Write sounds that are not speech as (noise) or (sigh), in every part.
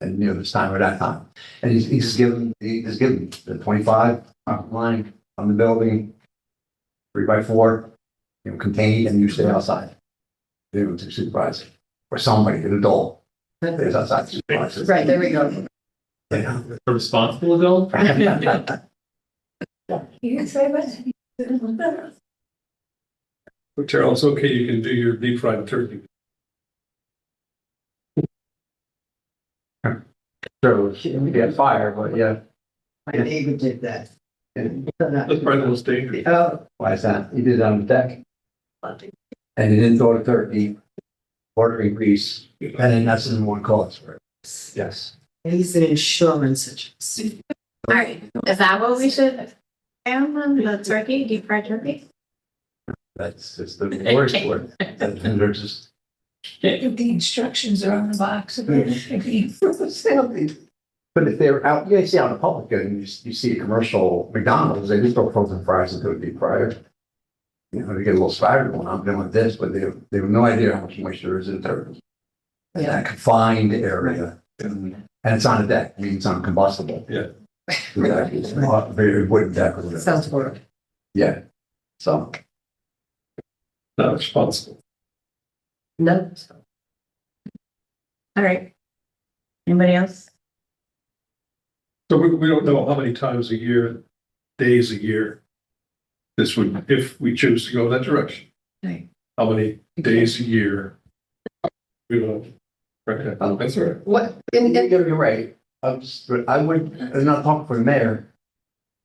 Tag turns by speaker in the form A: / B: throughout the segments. A: and near this time or that time. And he's, he's given, he has given the twenty-five front line on the building, three by four, you know, contained and you stay outside. You know, to supervise it, or somebody, an adult, is outside supervising.
B: Right, there we go.
A: Yeah. (laughs)
C: A responsible adult?
B: You can say what?
D: But Carol, it's okay, you can do your deep fried turkey.
A: So, we had fire, but yeah,
B: My neighbor did that.
D: That's probably the most dangerous.
B: Oh,
A: Uh, why is that? He did it on the deck and he didn't throw the turkey, ordering grease, and then that's the one cause for it. Yes.
B: he's an insurance agent.
E: All right, is that what we should, um, on the turkey, deep fried turkey?
A: That's, it's the worst word. And they're just
F: The instructions are on the box.
A: Mm-hmm. (laughs) But if they're out, you see out in the public, and you, s- you see a commercial McDonald's, they just throw frozen fries into a deep fryer. You know, they get a little spider going, I'm doing this, but they, have- they have no idea how much moisture is in there. In
B: Yeah.
A: that confined area, and it's on a deck, I mean, it's uncombustible.
D: Yeah.
A: Yeah, it's not Very wooden deck or whatever.
B: Sounds horrible.
A: Yeah, so,
D: Not responsible.
B: No.
E: All right. Anybody else?
D: So we, we don't know how many times a year, days a year. This would, if we choose to go that direction.
B: Right.
D: How many days a year? We don't. Right,
E: Oh.
D: that's all right.
B: What,
A: and,
B: and, and,
A: you're, you're right, I'm just, but I would, I'm not talking for the mayor,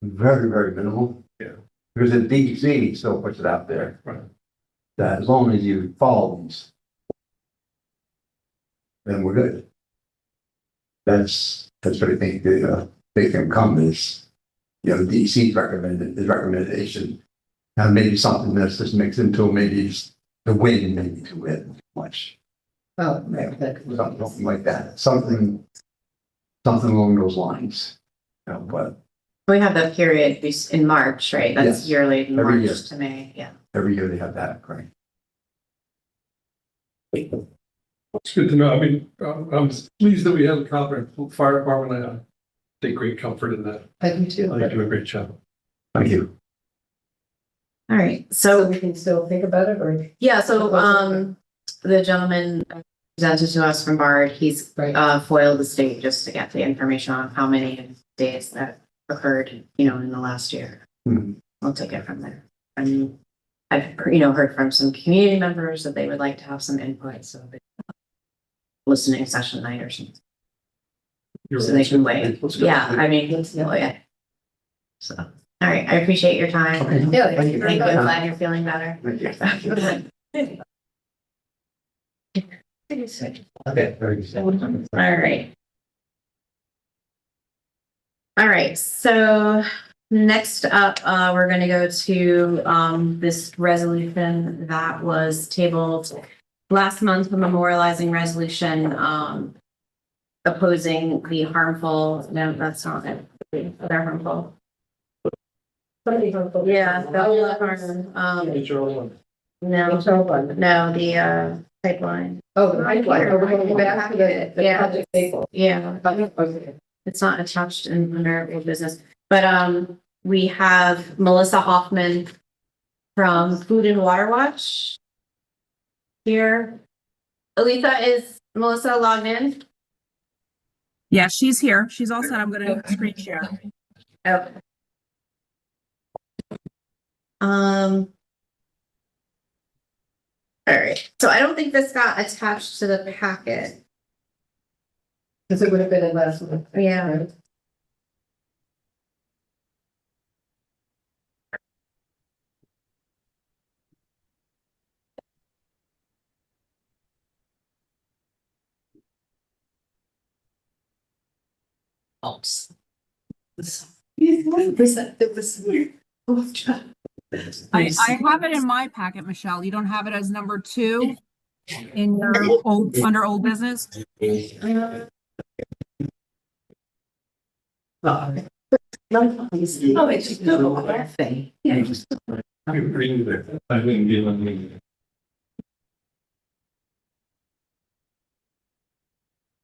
A: very, very minimal.
D: Yeah.
A: Because the DEC still puts it out there.
D: Right.
A: That as long as you follow these. Then we're good. That's, that's what I think the, uh, big come is, you know, the DEC's recommended, his recommendation. And maybe something that's just mixed into, maybe it's the wind, maybe too wet, much
B: oh, right,
A: something
B: that-
A: like that, something, something along those lines. You know, but
E: We have that period bes- in March, right?
A: Yes.
E: That's yearly,
A: Every year.
E: March to May, yeah.
A: every year they have that, right?
D: It's good to know. I mean, um, I'm I'm pleased that we have a competent fire department. I take great comfort in that.
B: I
D: I
B: do
D: think you
B: too.
D: do a great job.
A: Thank you.
E: All right,
B: So
E: so,
B: we can still think about it or?
E: yeah, so, um, the gentleman presented to us from Bard, he's
B: Right.
E: uh, FOIL the state just to get the information on how many days that occurred, you know, in the last year.
A: Mhm.
E: We'll take it from there. And I've, you know, heard from some community members that they would like to have some input, so they- listening session night or something,
D: You're
E: so they can
D: right.
E: wait. Yeah, I mean, oh, yeah. So, all right, I appreciate your time.
A: Okay.
B: Yeah,
A: Thank you.
E: Thank you. I'm glad you're feeling
A: (laughs)
E: better. (laughs)
A: Thank you. Thank you. Okay, very good.
E: All right. All right, so next up, uh, we're gonna go to, um, this resolution that was tabled last month memorializing resolution, um, opposing the harmful, no, that's not it, they're harmful. Yeah, that was harmful, um, no, no, the, uh, pipeline,
B: Oh, the pipeline, oh, we're going back to the, the
E: Yeah.
B: project table.
E: yeah.
B: Okay.
E: it's not attached in under old business, but um, we have Melissa Hoffman from Food and Water Watch here. Alisa, is Melissa logged in?
G: Yeah, she's here. She's all set. I'm gonna screen share.
E: Okay. Um. All right, so I don't think this got attached to the packet.
B: Cause it would have been in last month.
E: Yeah.
B: right? Oh,
G: I, I have it in my packet, Michelle. You don't have it as number two in your old, under old business?
D: You're reading there. I didn't give them.